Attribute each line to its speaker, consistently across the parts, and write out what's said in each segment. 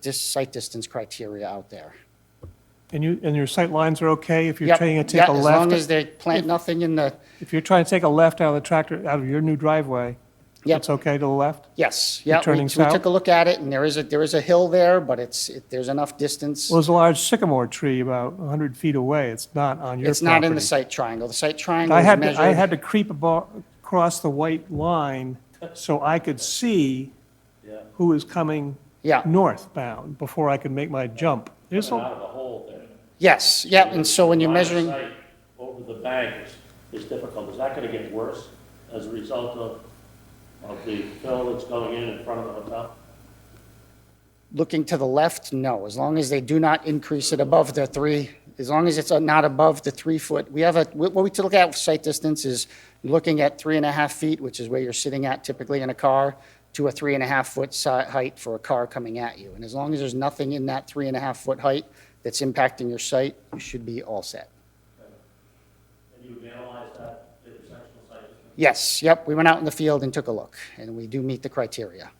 Speaker 1: dis, site distance criteria out there.
Speaker 2: And you, and your sight lines are okay if you're
Speaker 1: Yep,
Speaker 2: trying to
Speaker 1: yeah,
Speaker 2: take a
Speaker 1: As long as
Speaker 2: left?
Speaker 1: they plant nothing in the,
Speaker 2: If you're trying to take a left out of the tractor, out of your new driveway,
Speaker 1: Yep.
Speaker 2: it's okay to the left?
Speaker 1: yes, yeah, we,
Speaker 2: turning
Speaker 1: we
Speaker 2: south?
Speaker 1: took a look at it, and there is a, there is a hill there, but it's, it- there's enough distance.
Speaker 2: Well, there's a large sycamore tree about 100 feet away. It's not on your property.
Speaker 1: It's not in the site triangle. The site triangle
Speaker 2: I
Speaker 1: is
Speaker 2: had, to- I
Speaker 1: measured,
Speaker 2: had to creep abo- across the white line so I could see who was coming
Speaker 1: yeah,
Speaker 2: northbound before I could make my jump. There's
Speaker 3: Out
Speaker 2: a,
Speaker 3: of the hole there.
Speaker 1: yes, yeah, and so when you're
Speaker 3: Line of
Speaker 1: measuring,
Speaker 3: sight Over the bank is, is difficult. Is that gonna get worse as a result of, of the fill that's going in in front of the hotel?
Speaker 1: looking to the left, no, as long as they do not increase it above the three, as long as it's not above the three foot, we have a, what we look at with sight distance is looking at three and a half feet, which is where you're sitting at typically in a car, to a three and a half foot si- height for a car coming at you. And as long as there's nothing in that three and a half foot height that's impacting your sight, you should be all set.
Speaker 3: And you analyze that intersectional site distance?
Speaker 1: Yes, yep, we went out in the field and took a look, and we do meet the criteria.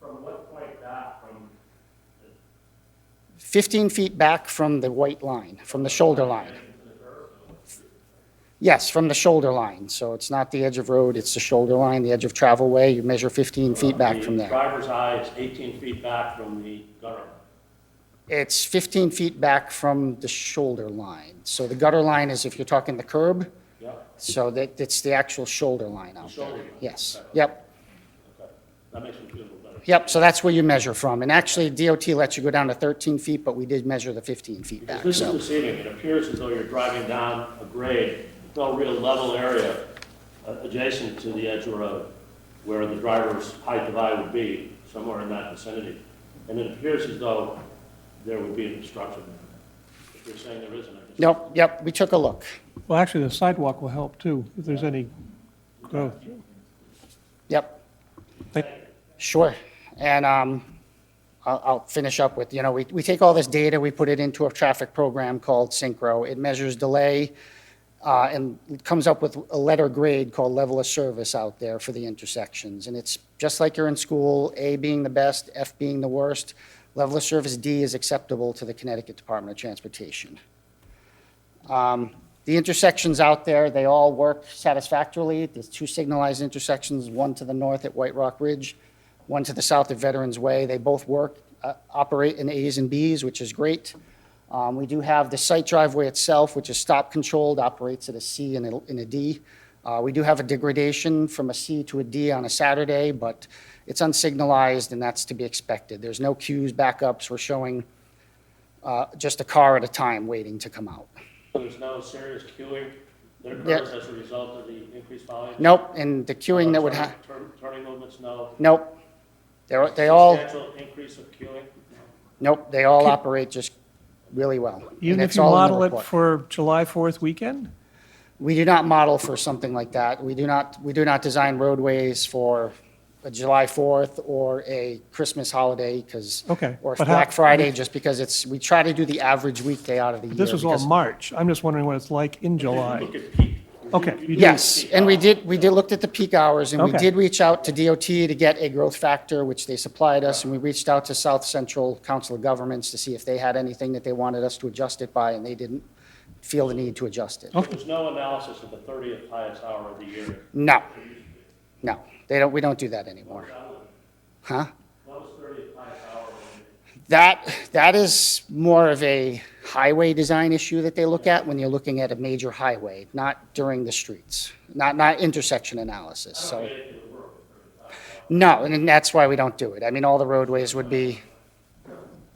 Speaker 3: From what point back from,
Speaker 1: 15 feet back from the white line, from the shoulder line. Yes, from the shoulder line, so it's not the edge of road, it's the shoulder line, the edge of travel way, you measure 15 feet back from
Speaker 3: The
Speaker 1: there.
Speaker 3: driver's eye is eighteen feet back from the gutter.
Speaker 1: It's 15 feet back from the shoulder line, so the gutter line is if you're talking the curb,
Speaker 3: Yep,
Speaker 1: so that, it's the actual shoulder line out there.
Speaker 3: shoulder line,
Speaker 1: Yes,
Speaker 3: okay.
Speaker 1: yep,
Speaker 3: okay. That makes me feel a little better.
Speaker 1: yep, so that's where you measure from, and actually DOT lets you go down to 13 feet, but we did measure the 15 feet
Speaker 3: Because
Speaker 1: back,
Speaker 3: this is
Speaker 1: so.
Speaker 3: this evening, it appears as though you're driving down a grade, no real level area uh, adjacent to the edge of the road where the driver's height of eye would be, somewhere in that vicinity. And it appears as though there would be an obstruction. If you're saying there isn't, I guess.
Speaker 1: Nope, yep, we took a look.
Speaker 2: well, actually, the sidewalk will help too, if there's any growth.
Speaker 1: Yep.
Speaker 2: Thank-
Speaker 1: Sure. And um, I'll I'll finish up with, you know, we we take all this data, we put it into a traffic program called Synchro. It measures delay uh, and it comes up with a letter grade called level of service out there for the intersections. And it's just like you're in school, A being the best, F being the worst. Level of service D is acceptable to the Connecticut Department of Transportation. Um, The intersections out there, they all work satisfactorily. There's two signalized intersections, one to the north at White Rock Ridge, one to the south at Veterans Way. They both work, uh, operate in As and Bs, which is great. Um, We do have the site driveway itself, which is stop-controlled, operates at a C and a- and a D. Uh, We do have a degradation from a C to a D on a Saturday, but it's unsignalized, and that's to be expected. There's no queues, backups. We're showing uh, just a car at a time waiting to come out.
Speaker 3: There's no serious queuing that
Speaker 1: Yeah.
Speaker 3: occurs as a result of the increased volume?
Speaker 1: Nope, and the queuing
Speaker 3: Oh,
Speaker 1: that would ha,
Speaker 3: Turn- Turning movements, no.
Speaker 1: nope. They're, they all,
Speaker 3: Substantial increase of queuing?
Speaker 1: nope, they all operate just really well.
Speaker 2: Even
Speaker 1: And
Speaker 2: if
Speaker 1: it's
Speaker 2: you
Speaker 1: all in the
Speaker 2: model it
Speaker 1: report.
Speaker 2: for July 4th weekend?
Speaker 1: We do not model for something like that. We do not, we do not design roadways for a July 4th or a Christmas holiday because.
Speaker 2: Okay,
Speaker 1: Or
Speaker 2: but how-
Speaker 1: Black Friday, just because it's, we try to do the average weekday out of the year.
Speaker 2: This was all
Speaker 1: because-
Speaker 2: March. I'm just wondering what it's like in July.
Speaker 3: Look at peak.
Speaker 2: Okay, you do- oh.
Speaker 1: Yes, and we did, we did, looked at the peak hours, and we
Speaker 2: Okay.
Speaker 1: did reach out to DOT to get a growth factor, which they supplied us, and we reached out to South Central Council of Governments to see if they had anything that they wanted us to adjust it by, and they didn't feel the need to adjust it.
Speaker 3: So There's no analysis of the 30th highest hour of the year.
Speaker 1: No, no, they don't, we don't do that anymore. Huh?
Speaker 3: What was 30th highest hour of the year?
Speaker 1: That, that is more of a highway design issue that they look at when you're looking at a major highway, not during the streets, not, not intersection analysis, so. No, and then that's why we don't do it. I mean, all the roadways would be,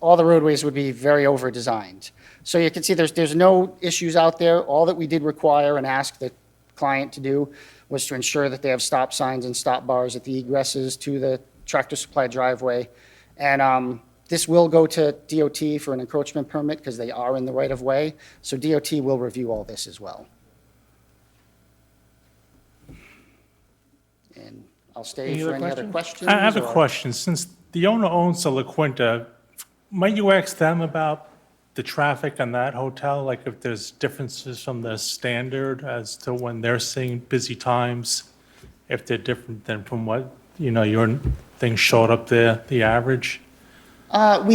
Speaker 1: all the roadways would be very over-designed. So you can see there's, there's no issues out there. All that we did require and ask the client to do was to ensure that they have stop signs and stop bars at the egresses to the tractor supply driveway. And um, this will go to DOT for an encroachment permit because they are in the right-of-way. So DOT will review all this as well. And I'll stay
Speaker 2: Any
Speaker 1: for
Speaker 2: other
Speaker 1: any other questions.
Speaker 2: questions?
Speaker 4: I have a
Speaker 1: or-
Speaker 4: question. Since the owner owns the La Quinta, might you ask them about the traffic on that hotel? Like if there's differences from the standard as to when they're seeing busy times? If they're different than from what, you know, your thing showed up there, the average?
Speaker 1: Uh, We